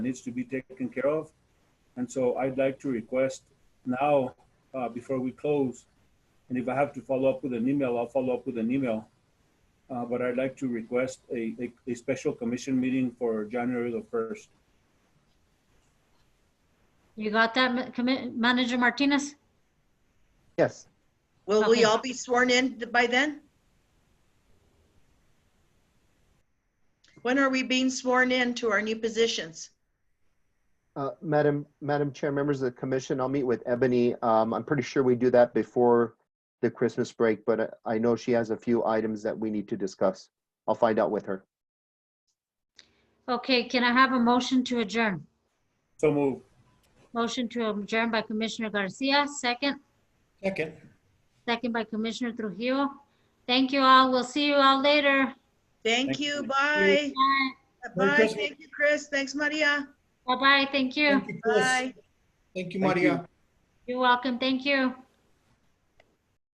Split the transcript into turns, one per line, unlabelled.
needs to be taken care of. And so I'd like to request now, uh, before we close, and if I have to follow up with an email, I'll follow up with an email. Uh, but I'd like to request a, a, a special commission meeting for January the first.
You got that, Ma- Commi- Manager Martinez?
Yes,
Will
Okay.
we all be sworn in th- by then? When are we being sworn in to our new positions?
uh, Madam, Madam Chair, members of the commission, I'll meet with Ebony. Um, I'm pretty sure we do that before the Christmas break, but I- I know she has a few items that we need to discuss. I'll find out with her.
Okay, can I have a motion to adjourn?
So move.
Motion to adjourn by Commissioner Garcia, second,
Second.
second by Commissioner Trujillo. Thank you all. We'll see you all later.
Thank
Thank
you,
you.
bye.
Merry
Bye,
Christmas.
thank you, Chris, thanks, Maria,
Bye-bye. Thank you.
Thank you, Chris.
bye.
Thank you,
Thank you.
Maria.
You're welcome. Thank you.